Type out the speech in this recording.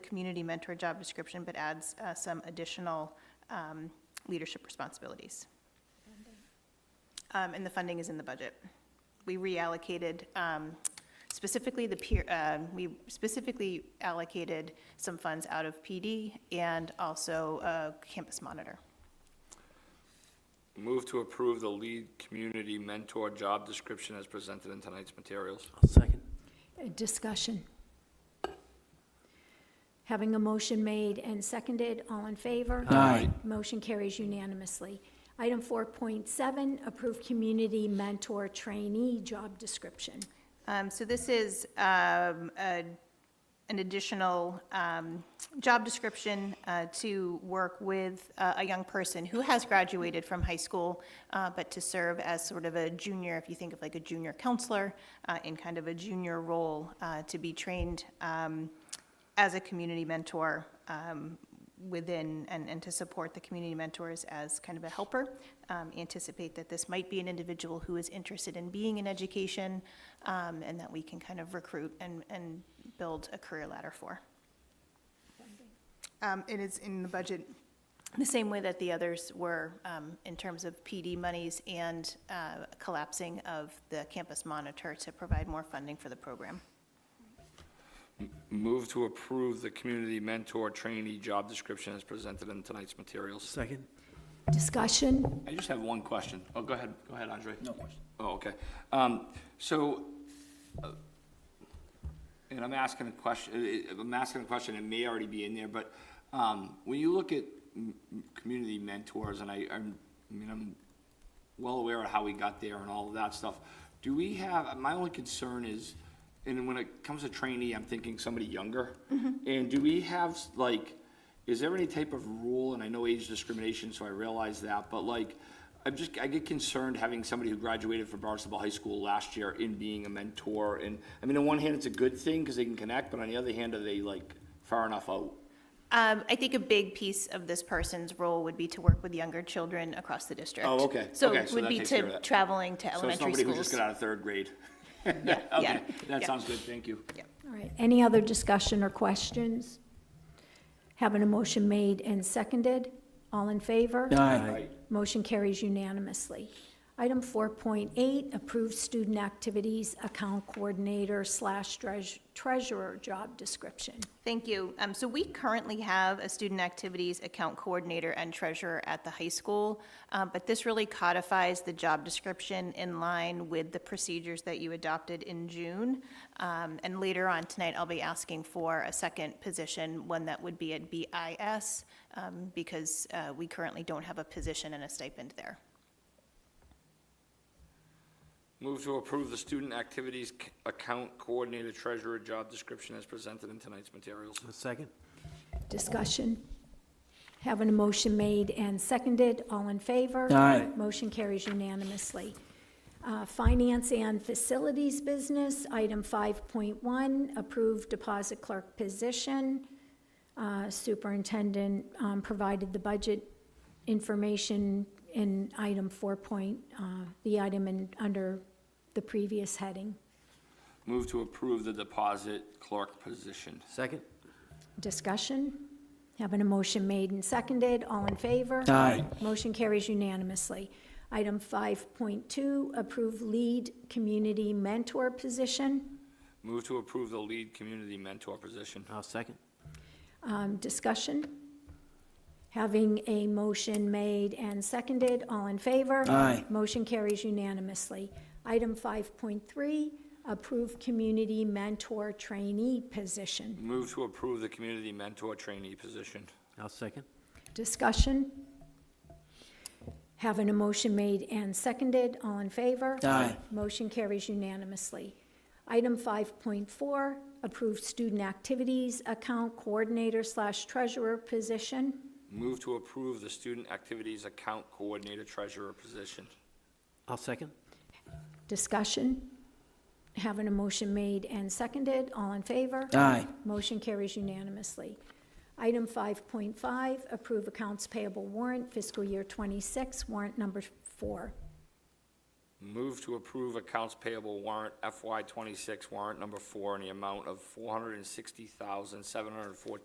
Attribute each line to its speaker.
Speaker 1: community mentor job description, but adds uh, some additional um, leadership responsibilities. Um, And the funding is in the budget. We reallocated um, specifically the peer, um, we specifically allocated some funds out of PD and also uh, campus monitor.
Speaker 2: Move to approve the lead community mentor job description as presented in tonight's materials.
Speaker 3: Second.
Speaker 4: Uh, Discussion. Having a motion made and seconded, all in favor?
Speaker 3: Aye.
Speaker 4: Motion carries unanimously. Item 4.7, approve community mentor trainee job description.
Speaker 1: Um, So this is um, a- an additional um, job description uh, to work with uh, a young person who has graduated from high school, uh, but to serve as sort of a junior, if you think of like a junior counselor, uh, in kind of a junior role, uh, to be trained um, as a community mentor um, within, and and to support the community mentors as kind of a helper. Um, Anticipate that this might be an individual who is interested in being in education, um, and that we can kind of recruit and and build a career ladder for. Um, It is in the budget, the same way that the others were um, in terms of PD monies and uh, collapsing of the campus monitor to provide more funding for the program.
Speaker 2: Move to approve the community mentor trainee job description as presented in tonight's materials.
Speaker 3: Second.
Speaker 4: Discussion.
Speaker 2: I just have one question. Oh, go ahead, go ahead, Andre. No question. Oh, okay. Um, so, uh, and I'm asking a question, uh, I'm asking a question, it may already be in there, but, um, when you look at m- m- community mentors, and I, I'm, I mean, I'm well aware of how we got there and all of that stuff. Do we have, my only concern is, and when it comes to trainee, I'm thinking somebody younger.
Speaker 1: Mm-hmm.
Speaker 2: And do we have, like, is there any type of rule, and I know age discrimination, so I realize that, but like, I'm just, I get concerned having somebody who graduated from Barnstable High School last year in being a mentor. And, I mean, on one hand, it's a good thing because they can connect, but on the other hand, are they like far enough out?
Speaker 1: Um, I think a big piece of this person's role would be to work with younger children across the district.
Speaker 2: Oh, okay.
Speaker 1: So
Speaker 2: Okay,
Speaker 1: it
Speaker 2: so
Speaker 1: would
Speaker 2: that
Speaker 1: be
Speaker 2: takes care of
Speaker 1: to
Speaker 2: that.
Speaker 1: traveling to
Speaker 2: So it's
Speaker 1: elementary
Speaker 2: somebody who just
Speaker 1: schools.
Speaker 2: got out of third grade.
Speaker 1: yeah,
Speaker 2: Okay, that
Speaker 1: yeah.
Speaker 2: sounds good, thank you.
Speaker 4: All right, any other discussion or questions? Having a motion made and seconded, all in favor?
Speaker 3: Aye.
Speaker 4: Motion carries unanimously. Item 4.8, approve student activities account coordinator slash treas- treasurer job description.
Speaker 1: Thank you. Um, So we currently have a student activities account coordinator and treasurer at the high school, uh, but this really codifies the job description in line with the procedures that you adopted in June. Um, And later on tonight, I'll be asking for a second position, one that would be at BIS, um, because uh, we currently don't have a position and a stipend there.
Speaker 2: Move to approve the student activities c- account coordinator treasurer job description as presented in tonight's materials.
Speaker 3: Second.
Speaker 4: Discussion. Having a motion made and seconded, all in favor?
Speaker 3: Aye.
Speaker 4: Motion carries unanimously. Uh, Finance and Facilities Business, item 5.1, approved deposit clerk position. Uh, Superintendent um, provided the budget information in item 4. point, uh, the item in, under the previous heading.
Speaker 2: Move to approve the deposit clerk position.
Speaker 3: Second.
Speaker 4: Discussion? Having a motion made and seconded, all in favor?
Speaker 3: Aye.
Speaker 4: Motion carries unanimously. Item 5.2, approve lead community mentor position.
Speaker 2: Move to approve the lead community mentor position.
Speaker 3: I'll second.
Speaker 4: Um, Discussion? Having a motion made and seconded, all in favor?
Speaker 3: Aye.
Speaker 4: Motion carries unanimously. Item 5.3, approve community mentor trainee position.
Speaker 2: Move to approve the community mentor trainee position.
Speaker 3: I'll second.
Speaker 4: Discussion? Having a motion made and seconded, all in favor?
Speaker 3: Aye.
Speaker 4: Motion carries unanimously. Item 5.4, approve student activities account coordinator slash treasurer position.
Speaker 2: Move to approve the student activities account coordinator treasurer position.
Speaker 3: I'll second.
Speaker 4: Discussion? Having a motion made and seconded, all in favor?
Speaker 3: Aye.
Speaker 4: Motion carries unanimously. Item 5.5, approve accounts payable warrant fiscal year 26, warrant number four.
Speaker 2: Move to approve accounts payable warrant FY twenty-six warrant number four in the amount of four hundred and sixty thousand, seven hundred and fourteen